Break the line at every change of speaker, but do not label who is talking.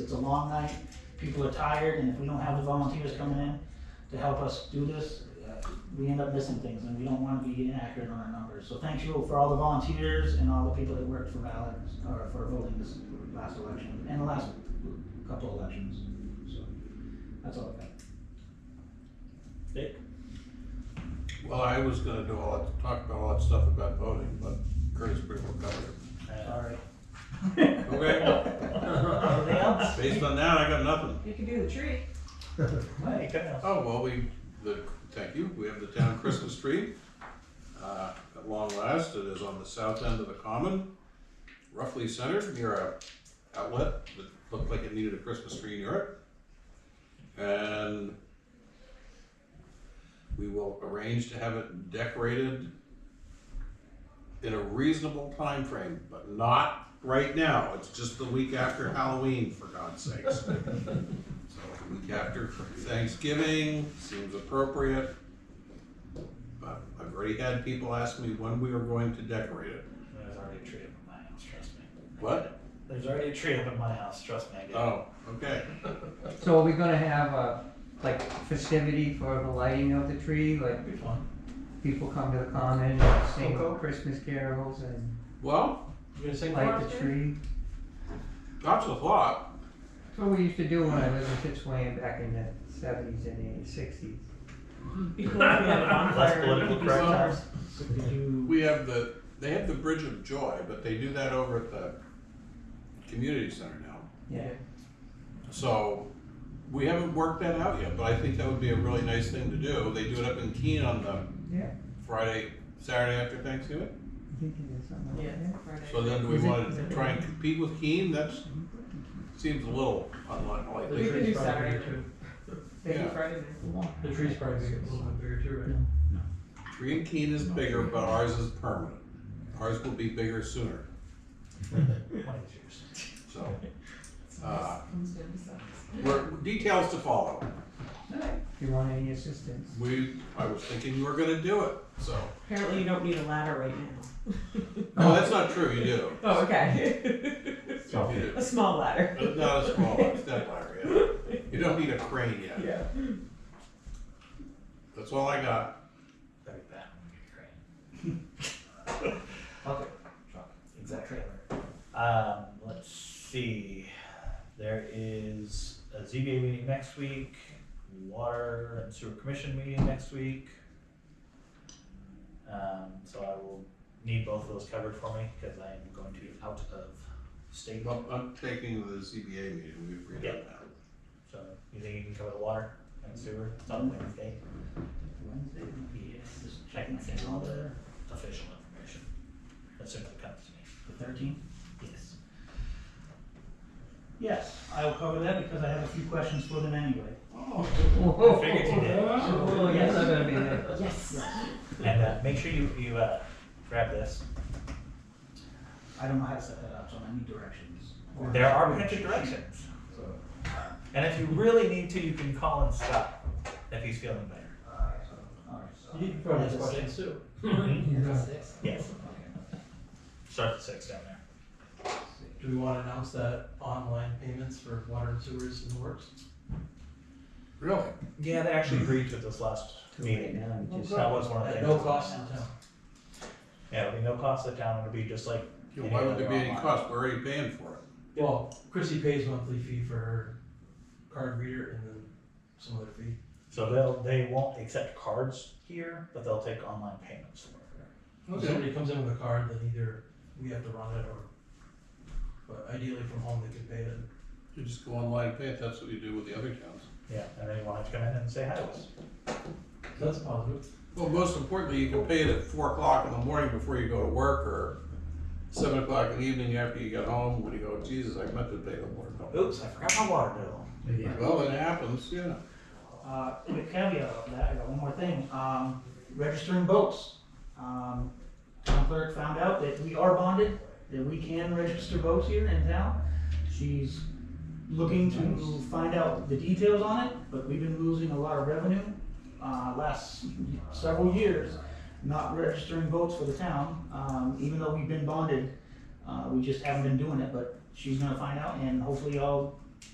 it's a long night, people are tired, and if we don't have the volunteers coming in to help us do this, uh, we end up missing things, and we don't wanna be inaccurate on our numbers. So thank you for all the volunteers and all the people that worked for ballot, or for voting this last election, and the last couple elections, so, that's all I got. Dick?
Well, I was gonna do all, that- talk about all that stuff about voting, but Curtis pretty well covered it.
Sorry. Anything
Okay?
else?
Based on that, I got nothing.
You can do the tree.
Mike, uh,
Oh, well, we, the, thank you, we have the town Christmas tree. Uh, at long last, it is on the south end of the common, roughly centered near a outlet that looked like it needed a Christmas tree near it. And we will arrange to have it decorated in a reasonable time frame, but not right now. It's just the week after Halloween, for God's sakes. So the week after Thanksgiving seems appropriate. But I've already had people ask me when we are going to decorate it.
There's already a tree up in my house, trust me.
What?
There's already a tree up in my house, trust me, I get it.
Oh, okay.
So are we gonna have a, like festivity for the lighting of the tree, like
That'd be fun.
people come to the common and sing
Coco?
Christmas carols and
Well,
You gonna sing
light
for
the
us?
tree?
that's a thought.
That's what we used to do when I lived in Fitzwilliam back in the seventies and sixties.
Be cool if we had a bonfire.
political
Be
correct.
stars.
So could you,
We have the, they have the Bridge of Joy, but they do that over at the community center now.
Yeah,
So we haven't worked that out yet, but I think that would be a really nice thing to do. They do it up in Keene on the
yeah,
Friday, Saturday after Thanksgiving.
I think it is something
Yeah.
like that.
Mm-hmm.
So then do we want to try and compete with Keene? That's, seems a little
The
We
unlikely.
could
tree's
do
probably
Saturday
bigger too.
Maybe
Yeah.
Friday
The tree's probably bigger- a little bit bigger too, right?
Tree in Keene is bigger, but ours is permanent. Ours will be bigger sooner,
one of these years.
so. uh,
night.
we're- Details to follow.
Do you want any assistance?
We, I was thinking you were gonna do it, so.
Apparently you don't need a ladder right now.
No, that's not true, you do.
Oh, okay.
You do.
A small ladder.
But Not a small one, step ladder, yeah. You don't need a crane yet.
Yeah.
That's all I got.
That'd be bad when we get a crane. Okay, truck, exact trailer.
Um, let's see, there is a ZBA meeting next week, water and sewer commission meeting next week. Um, so I will need both of those covered for me, cause I am going to be out of state,
Well, I'm taking the ZBA meeting, we agreed on that.
so you think you can cover the water and sewer, it's on Wednesday?
Wednesday, yes, just checking my
And all
calendar,
the official information, that simply comes to me.
the thirteenth? Yes. Yes, I will cover that because I have a few questions for them anyway.
I
figured you did.
Oh, yes, I'm gonna be there.
Yes.
And, uh, make sure you, you, uh, grab this,
I don't know how to set that up, so I need directions. Or-
there are potential directions.
So,
And if you really need to, you can call and stop if he's feeling better.
uh, so, all right, so.
You can probably
That's
ask
a
questions
six.
too.
Yes.
Okay,
Start at six down there.
let's see.
Do we wanna announce that online payments for water and sewers in the works?
Really?
Yeah, they actually agreed to this last meeting.
Now, we just-
That was one of the
At
things.
no cost to the town.
Yeah, it'll be no cost to the town. It'll be just like.
Yeah, Why would there be any
Online.
cost? We're already paying for it.
Well, Chrissy pays monthly fee for her card reader and then some other fee.
So they'll they won't accept cards here, but they'll take online payments.
If somebody comes in with a card, then either we have to run it or, but ideally from home they can pay it.
You just go online and pay it, that's what you do with the other towns.
Yeah, and then you want to come in and say hi to us.
So That's positive.
Well, most importantly, you can pay it at four o'clock in the morning before you go to work, or seven o'clock in the evening after you get home, when you go, Jesus, I meant to pay the water bill.
Oops, I forgot my water bill.
Well, it happens, yeah.
Uh, with a caveat of that, I got one more thing, um, registering boats. Um, town clerk found out that we are bonded, that we can register boats here in town. She's looking to find out the details on it, but we've been losing a lot of revenue, uh, last several years, not registering boats for the town, um, even though we've been bonded, uh, we just haven't been doing it, but she's gonna find out, and hopefully all